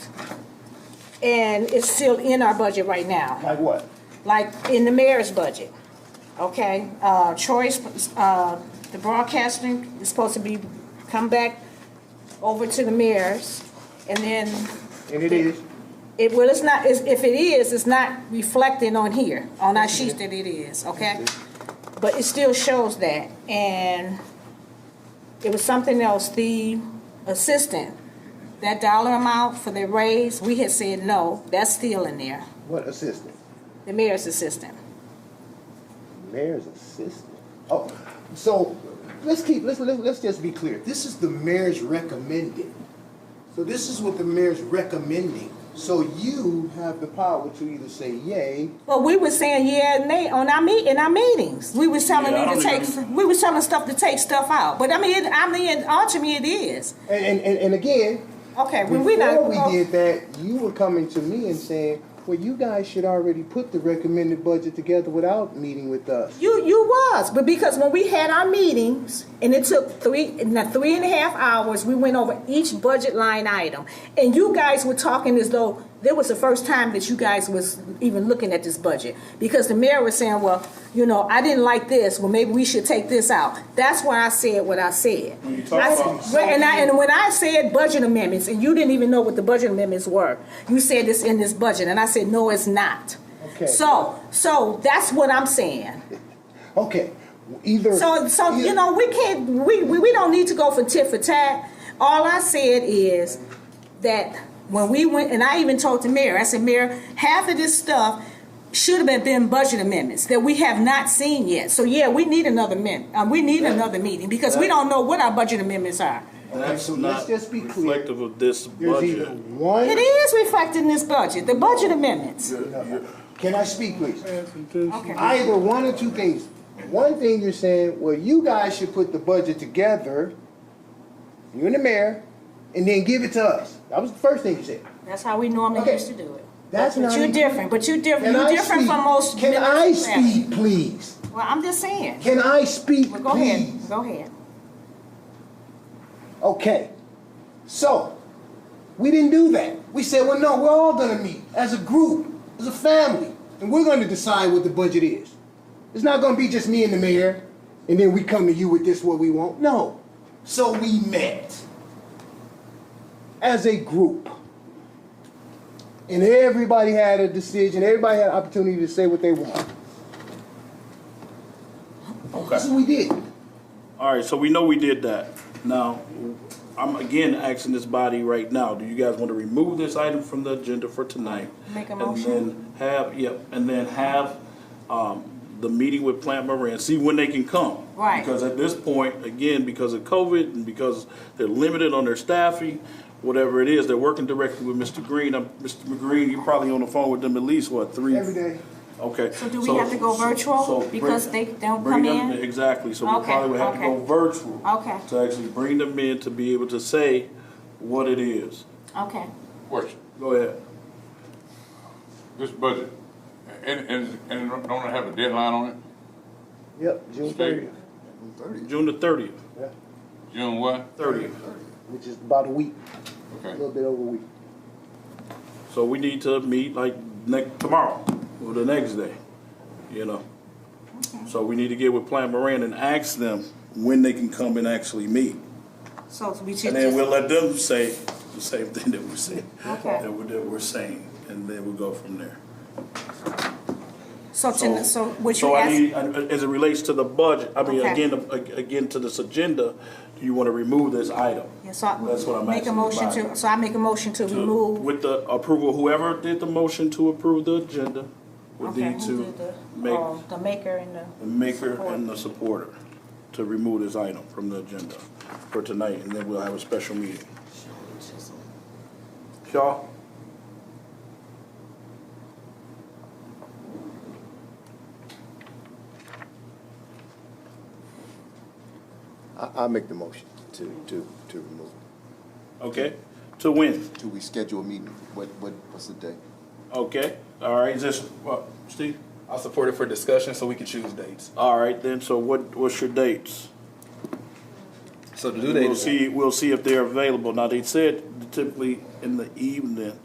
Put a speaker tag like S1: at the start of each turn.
S1: and it's still in our budget right now,
S2: Like what?
S1: like in the mayor's budget, okay? Uh, Troy's, uh, the broadcasting is supposed to be, come back over to the mayor's, and then
S2: And it is.
S1: it, well, it's not, it's- if it is, it's not reflecting on here, on our sheets that it is, okay? But it still shows that, and it was something else, the assistant, that dollar amount for the raise, we had said no, that's still in there,
S2: What assistant?
S1: the mayor's assistant.
S2: Mayor's assistant. Oh, so let's keep, let's, let's, let's just be clear.
S3: This is the mayor's recommended. So this is what the mayor's recommending.
S2: So you have the power to either say yay,
S1: Well, we were saying yeah and nay on our meet, in our meetings, we was telling
S4: Yeah, I
S1: you to
S4: don't
S1: take,
S4: even-
S1: we was telling stuff to take stuff out, but I mean, it- I mean, ultimately it is.
S2: and, and, and, and again,
S1: Okay, when we not.
S2: before we did that, you were coming to me and saying, well, you guys should already put the recommended budget together without meeting with us.
S1: You you was, but because when we had our meetings and it took three in the three and a half hours, we went over each budget line item, and you guys were talking as though there was the first time that you guys was even looking at this budget because the mayor was saying, well, you know, I didn't like this. Well, maybe we should take this out. That's why I said what I said.
S4: When you talk
S1: I said-
S4: about-
S1: well, and I and when I said budget amendments, and you didn't even know what the budget amendments were, you said it's in this budget, and I said no, it's not.
S2: Okay.
S1: So so that's what I'm saying.
S2: Okay, either.
S1: So, so you
S2: either-
S1: know, we can't, we, we, we don't need to go for tit for tat. All I said is that when we went, and I even told the mayor, I said, Mayor, half of this stuff should have been budget amendments that we have not seen yet. So yeah, we need another min, um, we need another meeting because we don't know what our budget amendments are.
S4: That's
S2: so
S4: not
S2: let's just be clear.
S4: reflective of this
S2: There's either
S4: budget.
S2: one.
S1: It is reflected in this budget, the budget amendments.
S2: Can I speak, please?
S1: Okay.
S2: Either one or two things. One thing you're saying, well, you guys should put the budget together, you and the mayor, and then give it to us. That was the first thing you said.
S1: That's how we normally
S2: Okay.
S1: used to do it.
S2: That's
S1: But
S2: not
S1: you're
S2: even-
S1: different, but you're different,
S2: Can
S1: you're
S2: I
S1: different
S2: speak?
S1: from most.
S2: Can I
S1: members.
S2: speak, please?
S1: Well, I'm just saying.
S2: Can I speak,
S1: Well, go
S2: please?
S1: ahead, go ahead.
S2: Okay. So, we didn't do that. We said, well, no, we're all gonna meet as a group, as a family, and we're gonna decide what the budget is. It's not gonna be just me and the mayor, and then we come to you with this what we want. No.
S3: So we met.
S2: as a group. And everybody had a decision, everybody had an opportunity to say what they want.
S4: Okay.
S2: That's what we did.
S4: All right, so we know we did that. Now, I'm again asking this body right now, do you guys want to remove this item from the agenda for tonight?
S1: Make a
S4: And then have, yep, and then have, um, the meeting with Plant Moran, see when they can come.
S1: Right.
S4: Because at this point, again, because of COVID and because they're limited on their staffing, whatever it is, they're working directly with Mr. Green. Um, Mr. McGreen, you're probably on the phone with them at least, what, three?
S2: Every day.
S4: Okay.
S1: So do we have to go
S4: so-
S1: virtual
S4: so bring-
S1: because they don't
S4: bring
S1: come
S4: them-
S1: in?
S4: Exactly, so we
S1: Okay,
S4: probably would have to go
S1: okay.
S4: virtual.
S1: Okay.
S4: To actually bring them in to be able to say what it is.
S1: Okay.
S5: Question,
S4: Go ahead.
S5: this budget, and, and, and don't it have a deadline on it?
S2: Yep, June
S5: Steve?
S2: thirtieth,
S4: June the thirtieth,
S5: June what?
S4: thirtieth.
S2: which is about a week, a
S5: Okay,
S2: little bit over a week.
S4: So we need to meet like next, tomorrow or the next day, you know? So we need to get with Plant Moran and ask them when they can come and actually meet.
S1: So we should
S4: And then we'll
S1: just,
S4: let them say the same thing that we're saying.
S1: Okay.
S4: That we're, that we're saying, and then we'll go from there.
S1: so, to- so what
S4: so
S1: you
S4: I
S1: ask,
S4: need- As it relates to the budget, I mean,
S1: Okay.
S4: again, ag- again, to this agenda, do you want to remove this item?
S1: yeah, so
S4: That's what
S1: I
S4: I'm
S1: make a
S4: asking
S1: motion
S4: about.
S1: to, so I make a motion to
S4: To-
S1: remove,
S4: With the approval, whoever did the motion to approve the agenda would
S1: okay,
S4: need
S1: who
S4: to
S1: did the,
S4: make
S1: oh, the maker and the.
S4: the maker and the supporter to remove this item from the agenda for tonight, and then we'll have a special meeting. Shaw?
S6: I, I'll make the motion to, to, to remove.
S4: Okay, to win.
S6: Do we schedule a meeting? What, what, what's the day?
S4: Okay, all right, is this, uh, Steve?
S7: I'll support it for discussion so we can choose dates.
S4: All right, then, so what, what's your dates?
S7: So the due date
S4: We'll
S7: is
S4: see, we'll see if they're available. Now, they said typically in the evening,